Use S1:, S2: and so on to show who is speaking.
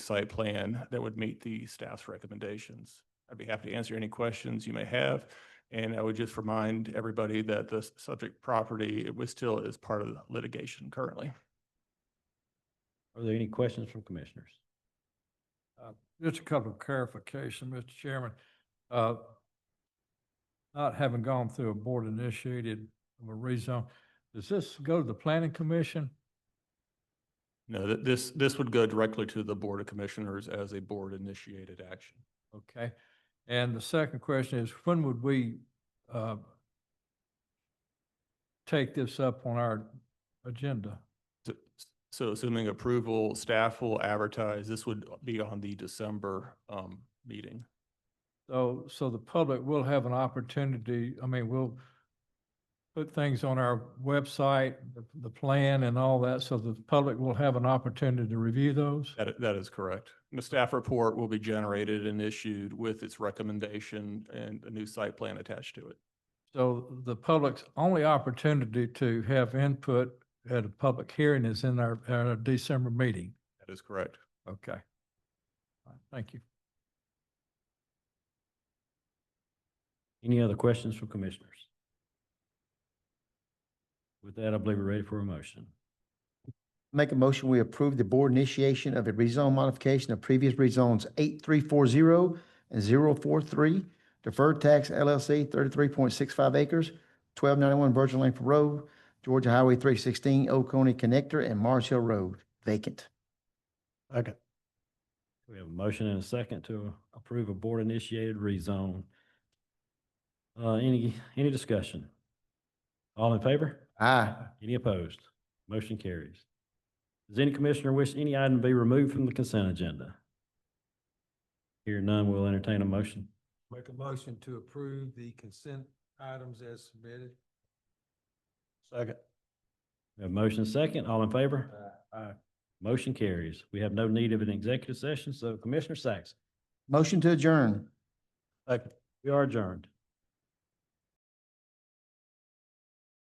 S1: site plan that would meet the staff's recommendations. I'd be happy to answer any questions you may have. And I would just remind everybody that the s- subject property, it was still is part of the litigation currently.
S2: Are there any questions from commissioners?
S3: Just a couple of clarification, Mr. Chairman. Uh, Not having gone through a board initiated of a rezone, does this go to the planning commission?
S1: No, th- this, this would go directly to the Board of Commissioners as a board initiated action.
S3: Okay. And the second question is, when would we uh, take this up on our agenda?
S1: So- So assuming approval, staff will advertise, this would be on the December um, meeting.
S3: So, so the public will have an opportunity, I mean, we'll put things on our website, the- the plan and all that, so the public will have an opportunity to review those?
S1: That, i- that is correct. And The staff report will be generated and issued with its recommendation and a new site plan attached to it.
S3: So the public's only opportunity to have input at a public hearing is in our, our December meeting.
S1: That is correct.
S3: Okay. All right, Thank you.
S2: Any other questions from commissioners? With that, I believe we're ready for a motion.
S4: Make a motion, we approve the board initiation of a rezone modification of previous rezones eight three four zero and zero four three, deferred tax LLC thirty-three point six five acres, twelve ninety-one Virgin Langford Road, Georgia Highway three sixteen, Oconee Connector, and Mars Hill Road, vacant.
S2: Okay. We have a motion and a second to approve a board-initiated rezone. Uh, any, any discussion? All in favor?
S4: Aye.
S2: Any opposed? Motion carries. Does any commissioner wish any item be removed from the consent agenda? Here none, we'll entertain a motion.
S5: Make a motion to approve the consent items as submitted. Second.
S2: We have motion second, all in favor? Motion carries. We have no need of an executive session, so Commissioner Sacks,
S4: Motion to adjourn.
S2: we are adjourned.